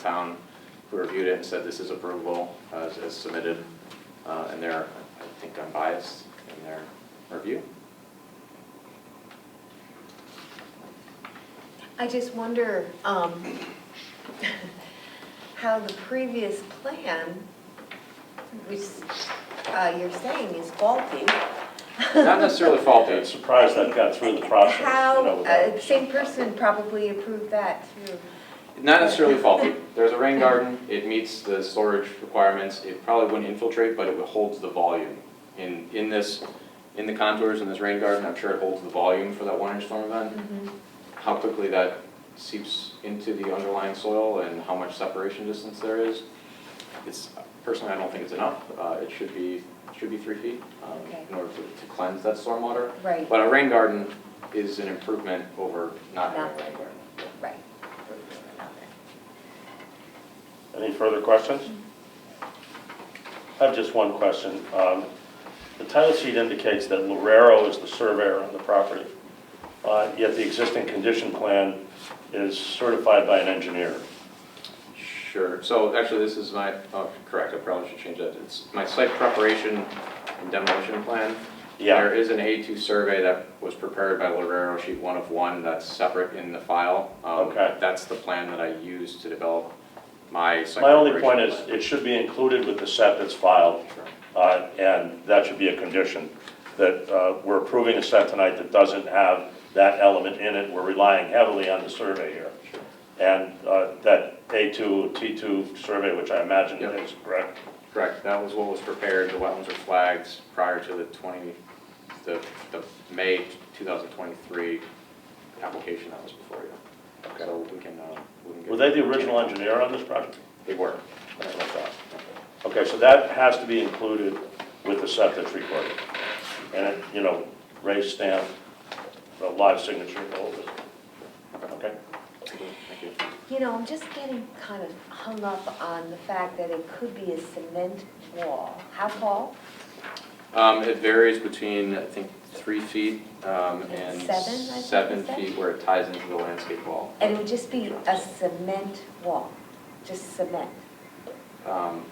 town who reviewed it and said this is approvable uh, as as submitted, uh, and they're, I think I'm biased in their review. I just wonder um, how the previous plan, which uh, you're saying is faulty. Not necessarily faulty, I'm surprised that got through the process. you know, How, without- uh, same person probably approved that too. not necessarily faulty. There's a rain garden, it meets the storage requirements, it probably wouldn't infiltrate, but it holds the volume. In, in this, in the contours in this rain garden, I'm sure it holds the volume for that one inch storm event. how quickly that seeps into the underlying soil and how much separation distance there is. It's, personally, I don't think it's enough. Uh, It should be, should be three feet um, Okay. in order to to cleanse that stormwater. Right, But a rain garden is an improvement over not having a rain garden. right. Any further questions? I have just one question. Um, The title sheet indicates that Lorero is the surveyor on the property, uh, yet the existing condition plan is certified by an engineer. Sure, so actually, this is my, oh, correct, I probably should change that. It's my site preparation and demolition plan. Yeah. There is an A2 survey that was prepared by Lorero Sheet 1 of 1 that's separate in the file. Um, Okay. That's the plan that I used to develop my site My only point preparation is, it should be included with the set that's filed, plan. Sure. uh, and that should be a condition, that uh, we're approving a set tonight that doesn't have that element in it. We're relying heavily on the survey here. And uh, that A2, T2 survey, which I imagine Yep. is correct, Correct, that was what was prepared, the wetlands were flagged prior to the 20, the, the May 2023 application that was before you. So we can, uh, we can get. were they the original engineer on this project? They were. That's what I thought. Okay, so that has to be included with the set that's recorded. And, it, you know, raised stamp, the live signature, all of it. Okay? Thank you. You know, I'm just getting kind of hung up on the fact that it could be a cement wall. How tall? Um, it varies between, I think, three feet, um, and Seven, I think you seven said? feet where it ties into the landscape wall. And it would just be a cement wall, just cement. Um,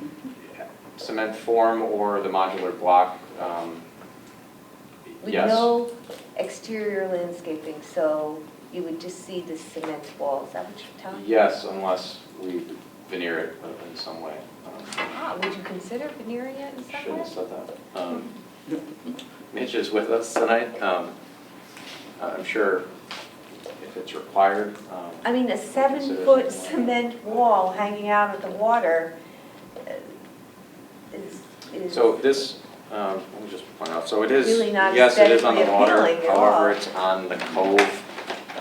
cement form or the modular block, um, With yes. no exterior landscaping, so you would just see the cement walls, is that what you're telling me? Yes, unless we veneer it in some way. Um, Ah, would you consider veneering it in some Shouldn't have way? said that. Um, Mitch is with us tonight, um, I'm sure if it's required, um, I mean, Consider a it seven-foot something like cement wall hanging out of the water uh, is, is. So this, um, let me just point out, so it is, Really not yes, it is on the aesthetically water, appealing at all. however, it's on the cove.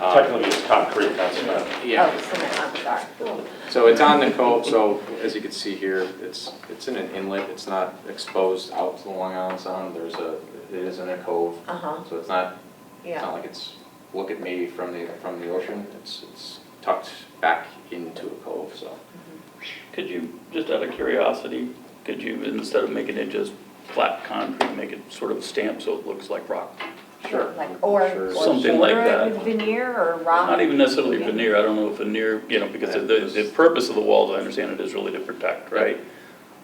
um, Technically, it's concrete, that's not. Oh, Yeah, cement, I'm sorry. so it's on the cove, so as you can see here, it's, it's in an inlet, it's not exposed out to the Long Island Sound, there's a, it is in a cove. Uh-huh, So it's not, it's not yeah, like it's, look at me from the, from the ocean, it's, it's tucked back into a cove, so. Could you, just out of curiosity, could you, instead of making it just flat concrete, make it sort of stamped so it looks like rock? Sure. like, or, Sure. or Something like veneer it that. with veneer or rock. Not even necessarily Okay. veneer, I don't know if veneer, you know, because the, the purpose of the walls, I understand it is really to protect, right?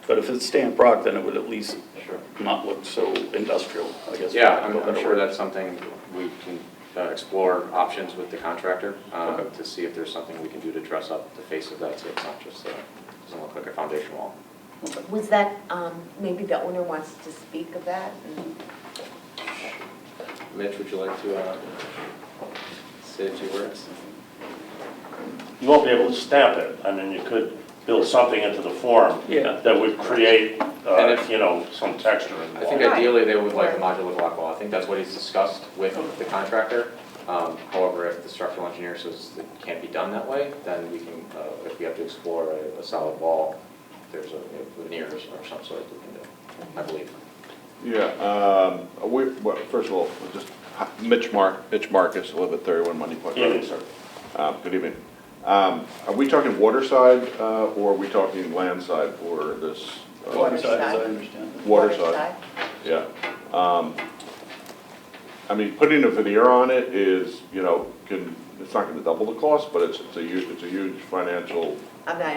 But if it's stamped rock, then it would at least Sure. not look so industrial, I guess. for Yeah, lack of I'm a I'm better sure word. that's something we can uh, explore options with the contractor uh, Okay. to see if there's something we can do to dress up the face of that, so it's not just, uh, doesn't look like a foundation wall. Was that, um, maybe the owner wants to speak of that? and- Mitch, would you like to uh, say a few words? You won't be able to stamp it. I mean, you could build something into the form Yeah. that would create, And uh, if- you know, some texture in the I think wall. Right. ideally they would like a modular block wall, I think that's what he's discussed with the contractor. Um, However, if the structural engineer says it can't be done that way, then we can, uh, if we have to explore a- a solid wall, there's a a veneers or some sort we can do, I believe. Yeah, um, we, well, first of all, we'll just, Mitch Mark, Mitch Marcus, eleven thirty-one Money Point Evening, Road. sir. Um, Good evening. Um, Are we talking waterside, uh, or are we talking landside for this? uh, Water. As I understand it. Water side, yeah. Um, I mean, putting a veneer on it is, you know, can, it's not gonna double the cost, but it's, it's a huge, it's a huge financial I'm not